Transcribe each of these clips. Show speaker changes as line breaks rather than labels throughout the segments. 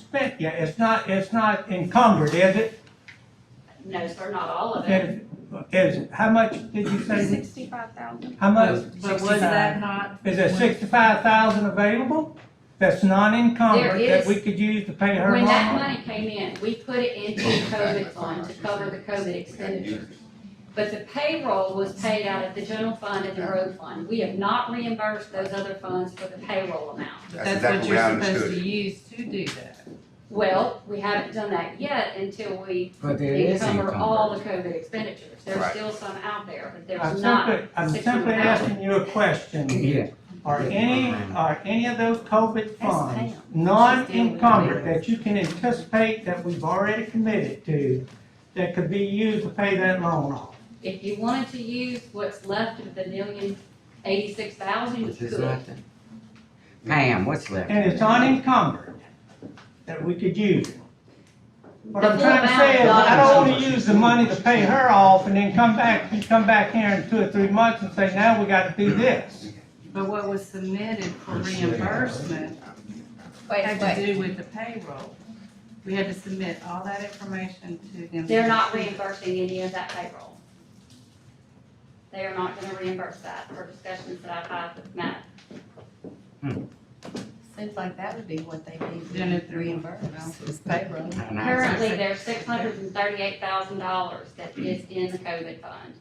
spent yet, it's not, it's not encumbered, is it?
No, sir, not all of it.
Is, is, how much did you say,
Sixty-five thousand.
how much,
But was that not?
is there sixty-five thousand available? That's non-encumbered,
There
that
is-
we could use to pay her
When that
loan?
money came in, we put it into COVID fund to cover the COVID expenditure. But the payroll was paid out of the general fund and the road fund. We have not reimbursed those other funds for the payroll amount.
That's
exactly
what
what I
you're supposed
understood.
to use to do that.
Well, we haven't done that yet until we
But there is
cover all the
encumbered.
COVID expenditures. There's
Right.
still some out there, but
I'm
there's not.
simply, I'm
six
simply
hundred thousand.
asking you a question.
Yeah,
Are any, are any of those COVID funds
Pam.
non-encumbered that you can anticipate that we've already committed to, that could be used to pay that loan off?
If you wanted to use what's left of the million eighty-six thousand, you
which is
could.
nothing. Pam, what's left?
and it's unencumbered, that we could use. it. What I'm
The full
trying to say is,
amount,
I
not-
don't wanna use the money to pay her off and then come back, you come back here in two or three months and say, now we gotta do this.
But what was submitted for reimbursement
Wait,
had
wait,
to do with the payroll. We had to submit all that information to them.
They're not reimbursing any of that payroll. They are not gonna reimburse that for discussions that I've had with Matt.
seems like that would be what they
Then
need
if
to
they're-
reimburse, is payroll.
And I-
Currently, there's six hundred and thirty-eight thousand dollars that is in the COVID fund.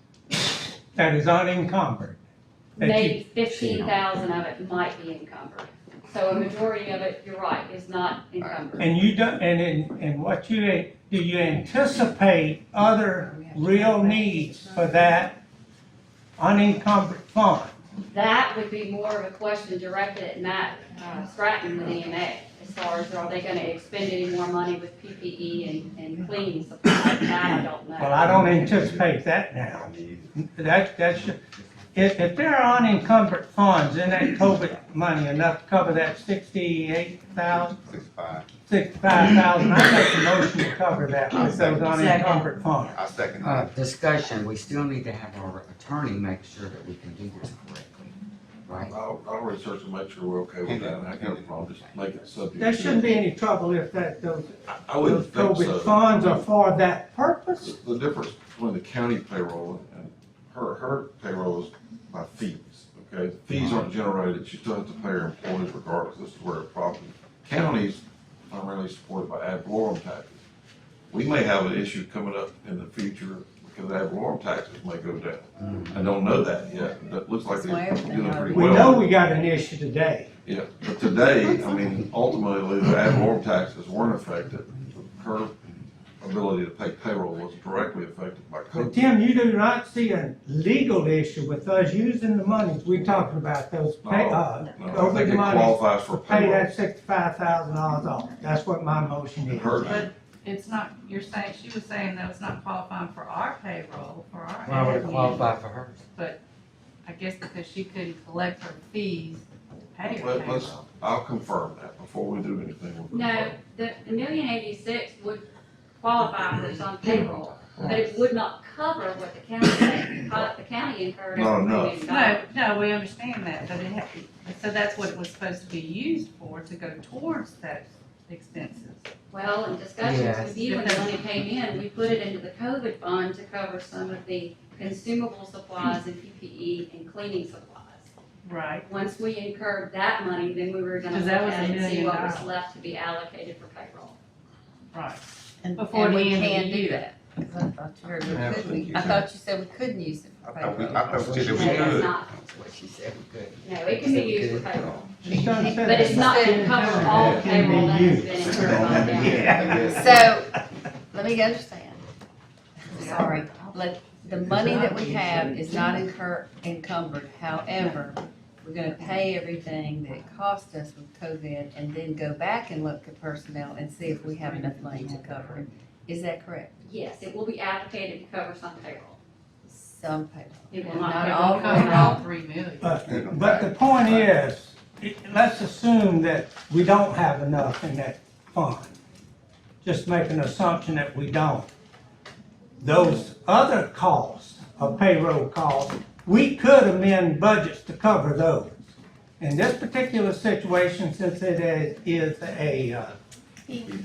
That is unencumbered. That you-
Maybe fifteen thousand of it might be encumbered. So a majority of it, you're right, is not encumbered.
And you don't, and in, and what you, a- do you anticipate other real needs for that unencumbered fund?
That would be more of a question directed at Matt uh, Stratton with EMA, as far as are they gonna expend any more money with PPE and, and cleaning supplies, that I don't know.
Well, I don't anticipate that now. That, that's, if, if there are unencumbered funds in that COVID money enough to cover that sixty-eight thousand,
Sixty-five,
sixty-five thousand, I make a motion to cover that with those unencumbered funds.
I second
Uh,
that.
discussion, we still need to have our attorney make sure that we can do this correctly, right?
I'll, I'll research and make sure we're okay with that, and I got a problem, just make it subject.
There
to-
shouldn't be any trouble if that, those,
I- I
those
wouldn't think
COVID
so.
funds are for that purpose.
The difference between the county payroll and her, her payroll is by fees, okay? Fees aren't generated, she still has to pay her employees regardless, this is where the problem. Counties are really supported by ad valorem taxes. We may have an issue coming up in the future because ad valorem taxes may go down. I don't know that yet, that looks like they're doing pretty
We
well.
know we got an issue today.
Yeah, but today, I mean, ultimately, the ad valorem taxes weren't affected. Her ability to pay payroll was directly affected by
But
COVID.
Tim, you do not see a legal issue with us using the monies we talking about, those pay, uh,
No, I think
COVID
it
monies,
qualifies for
pay
payroll.
that sixty-five thousand dollars off. That's what my motion is.
Her,
But it's not, you're saying, she was saying that it's not qualifying for our payroll, for our.
Why would it
admin.
qualify for hers?
I guess because she couldn't collect her fees to pay her
Let- let's-
payroll.
I'll confirm that before we do anything. with the
No, the, the million eighty-six would qualify for some payroll, but it would not cover what the county, what the county incurred. as a
Not enough.
million dollars.
No, no, we understand that, but it had, so that's what it was supposed to be used for, to go towards those expenses.
Well, in discussions
Yes.
with you, when the money came in, we put it into the COVID fund to cover some of the consumable supplies and PPE and cleaning supplies.
Right.
Once we incurred that money, then we were gonna
Because
look
that was
at
a
it and see
million
what was
dollars.
left to be allocated for payroll.
Right.
And,
Before
and
the
we
end of the
can do
year.
that. 'Cause I thought you heard we
Yeah, I
couldn't.
think you
I
can.
thought you said we couldn't use it for
I thought we-
payroll.
I thought we said
No, it's
that we could.
not,
That's what she said we could.
no, it can be used for payroll,
She done said
but it's
that.
not gonna cover all the
It can be
payroll that has
used.
been incurred on down.
So, let me understand. Sorry, let, the money that we have is not incur, encumbered, however, we're gonna pay everything that it cost us with COVID and then go back and look at personnel and see if we have enough money to cover it. Is that correct?
Yes, it will be allocated to cover some payroll.
Some payroll.
It will not
Not
cover
all
It would cover
payroll.
all three million.
But, but the point is, it- let's assume that we don't have enough in that fund. Just make an assumption that we don't. Those other costs, of payroll costs, we could amend budgets to cover those. In this particular situation, since it is, is a, uh,
He